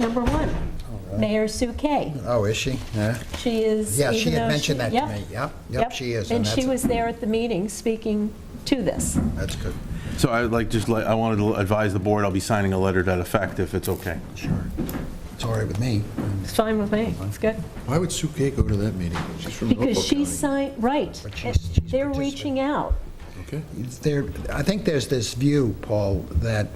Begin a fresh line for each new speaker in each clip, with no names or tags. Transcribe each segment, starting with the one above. number one, Mayor Sue Kay.
Oh, is she? Yeah.
She is.
Yeah, she
even
had
though
mentioned that to
yep,
me. Yep, yep, she is, and
And she
that's-
was there at the meeting speaking to this.
That's good.
So I would like, just, like I wanted to advise the board, I'll be signing a letter to that effect, if it's okay.
Sure. It's all right with me.
It's fine with me. It's good.
Why would Sue Kay go to that meeting? She's from Norfolk
Because she
County.
signed, right.
But she's- she's
They're
participating.
reaching out.
Okay.
It's There, I think there's this view, Paul, that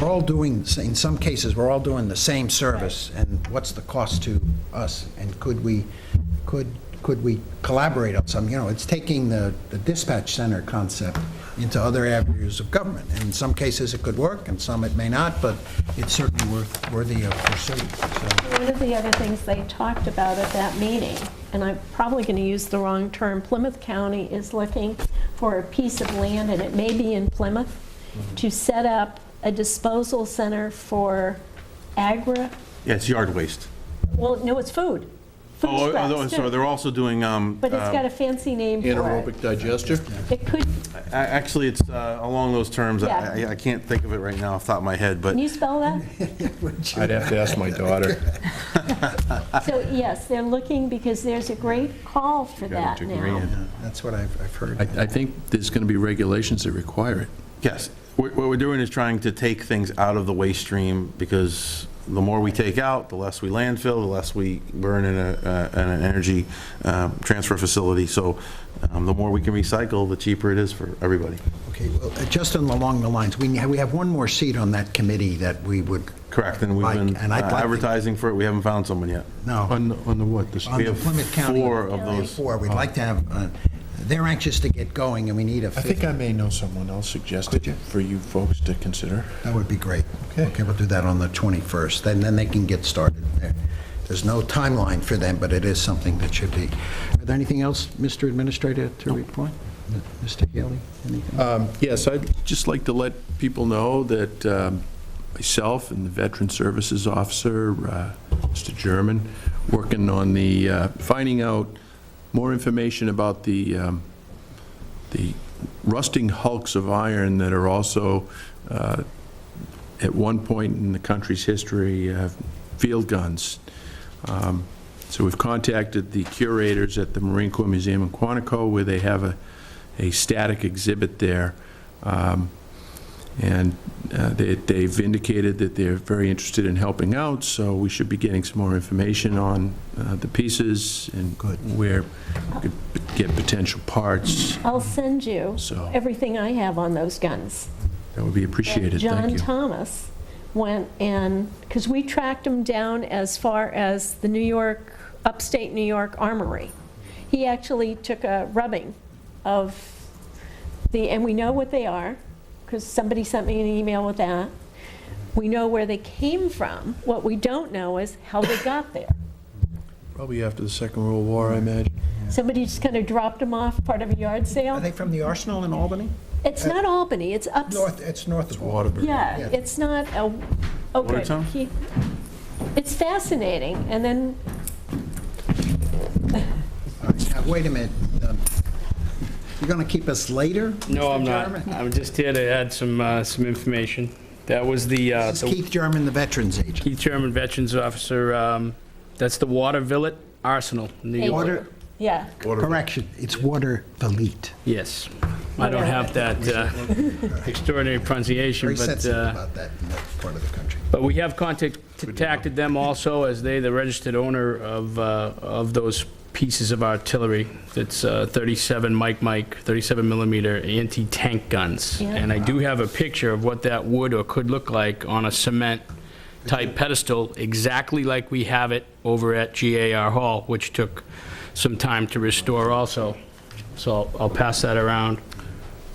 we're all doing, in some cases, we're all doing the same service, and what's the cost to us? And could we, could, could we collaborate on some, you know, it's taking the the dispatch center concept into other avenues of government. In some cases, it could work, and some it may not, but it's certainly worth, worthy of pursuit. So,
One of the other things they talked about at that meeting, and I'm probably going to use the wrong term, Plymouth County is looking for a piece of land, and it may be in Plymouth,
Mm-hmm.
to set up a disposal center for agri,
Yeah, it's yard waste.
well, no, it's food.
Oh,
Food
although,
scraps,
sorry,
too.
they're also doing, um,
But it's
um,
got a fancy name for it.
Anaerobic digester?
It could,
a- actually, it's uh, along those terms. I-
Yeah.
I I can't think of it right now off the top of my head, but
can you spell that?
I'd have to ask my daughter.
So, yes, they're looking, because there's a great call for
Got
that
a
now.
degree.
yeah, uh, That's what I've, I've heard.
I, I think there's going to be regulations that require it.
yes, what what we're doing is trying to take things out of the waste stream, because the more we take out, the less we landfill, the less we burn in a, uh, in an energy uh, transfer facility. So um, the more we can recycle, the cheaper it is for everybody.
Okay, well, uh, just on- along the lines, we we have one more seat on that committee that we would.
Correct, and we've
like,
been
and I'd
uh,
like to-
advertising for it, we haven't found someone yet.
No,
the, on the what? The-
on
we
the
have
Plymouth County.
four of those. Uh-huh.
Four, we'd like to have, uh, they're anxious to get going, and we need a
I think
fifth.
I may know someone else suggested for you folks to consider.
That would be great.
Okay.
Okay, we'll do that on the 21st, and then they can get started. There- There's no timeline for them, but it is something that should be. Are there anything else, Mr. Administrator, to report? M- Mr. Haley, anything?
Um, Yes, I'd just like to let people know that um, myself and the Veteran Services Officer, uh, Mr. German, working on the, uh, finding out more information about the, um, the rusting hulks of iron that are also, uh, at one point in the country's history, uh, field guns. Um, So we've contacted the curators at the Marine Corps Museum in Quantico, where they have a, a static exhibit there. Um, And uh, they, they've indicated that they're very interested in helping out, so we should be getting some more information on uh, the pieces and where we could get potential parts,
I'll send you
So-
everything I have on those guns.
that would be appreciated,
John
thank you.
Thomas went and, because we tracked him down as far as the New York, upstate New York Armory. He actually took a rubbing of the, and we know what they are, because somebody sent me an email with that. We know where they came from. What we don't know is how they got there.
Probably after the Second World War, I imagine.
Somebody just kind of dropped them off, part of a yard
Are
sale.
they from the Arsenal in Albany?
It's not Albany, it's up,
North, it's north of Albany.
Waterbury.
yeah,
yeah.
it's not a, oh, good.
Watertown?
He- It's fascinating, and then
All right, Now, wait a minute. um, You're going to keep us later?
No,
Mr.
I'm not.
Jarman?
I'm just here to add some, uh, some information. That was the, uh,
This
the
is Keith German, the Veterans Agent.
Keith German Veterans Officer, um, that's the Water Villet Arsenal, in New York.
Water,
Yeah,
correction, it's Water Elite.
Yes. I don't have that uh, extraordinary pronunciation,
Very
but,
sensitive
uh,
about that in that part of the country.
but we have contact- contacted them also as they, the registered owner of, uh, of those pieces of artillery. That's uh, 37 Mike Mike, 37 millimeter anti-tank guns.
Yeah.
And I do have a picture of what that would or could look like on a cement-type pedestal, exactly like we have it over at GAR Hall, which took some time to restore also. So I'll pass that around.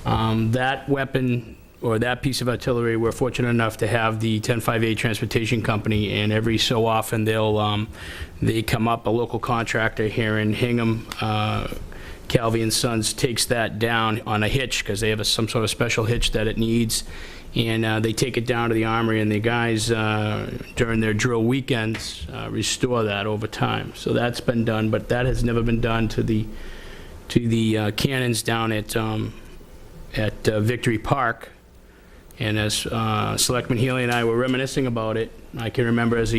Um, That weapon, or that piece of artillery, we're fortunate enough to have the 105A Transportation Company, and every so often, they'll, um, they come up, a local contractor here in Hingham, uh, Calvi and Sons, takes that down on a hitch, because they have a- some sort of special hitch that it needs, and uh, they take it down to the armory, and the guys, uh, during their drill weekends, uh, restore that over time. So that's been done, but that has never been done to the, to the uh, cannons down at, um, at uh, Victory Park. And as uh, Selectman Healy and I were reminiscing about it, I can remember as a